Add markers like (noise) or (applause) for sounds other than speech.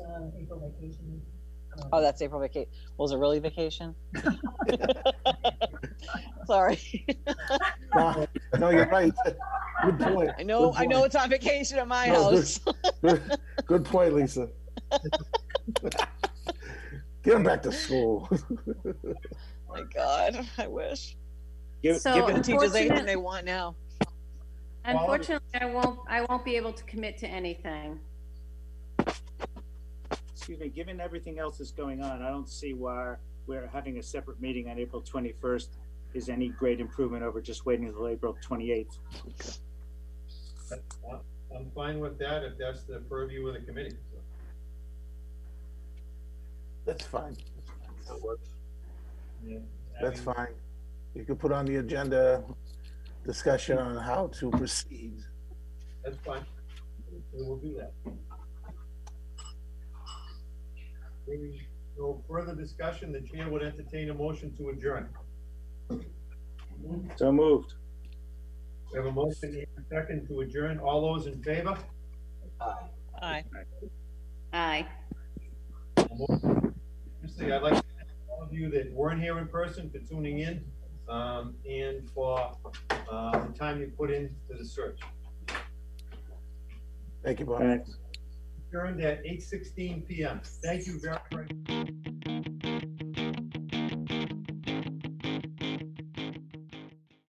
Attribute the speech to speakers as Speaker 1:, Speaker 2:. Speaker 1: uh, April vacation. uh,
Speaker 2: Oh, that's April vacation. Was it really vacation? (laughs) Sorry.
Speaker 3: No, (laughs) no, you're right. Good point.
Speaker 2: I know,
Speaker 3: Good
Speaker 2: I know
Speaker 3: point.
Speaker 2: it's on vacation at my (laughs)
Speaker 3: No,
Speaker 2: house. Oh
Speaker 3: Good- Good point, Lisa. (laughs) Get them back to school. (laughs)
Speaker 2: My God, I wish.
Speaker 4: Give,
Speaker 5: So-
Speaker 4: give
Speaker 2: The
Speaker 4: it,
Speaker 2: teachers anything
Speaker 5: Unfortunate-
Speaker 2: they want now.
Speaker 5: Unfortunately, I won't, I won't be able to commit to anything.
Speaker 4: excuse me, given everything else that's going on, I don't see why we're having a separate meeting on April twenty-first is any great improvement over just waiting until April twenty-eighth.
Speaker 6: I'm fine with that if that's the purview of the committee.
Speaker 3: That's fine.
Speaker 6: Yeah, I
Speaker 3: That's
Speaker 6: mean,
Speaker 3: fine. You could put on the agenda discussion on how to proceed.
Speaker 6: That's fine. We will do that. Maybe no further discussion, the chair would entertain a motion to adjourn.
Speaker 4: So moved.
Speaker 6: We have a motion and a second to adjourn. All those in favor?
Speaker 2: Aye.
Speaker 5: Aye.
Speaker 6: Obviously, I'd like to thank all of you that weren't here in person for tuning in, um, and for, uh, the time you put into the search.
Speaker 3: Thank you, Bob.
Speaker 4: Thanks.
Speaker 6: Adjourned at eight sixteen PM. Thank you very much.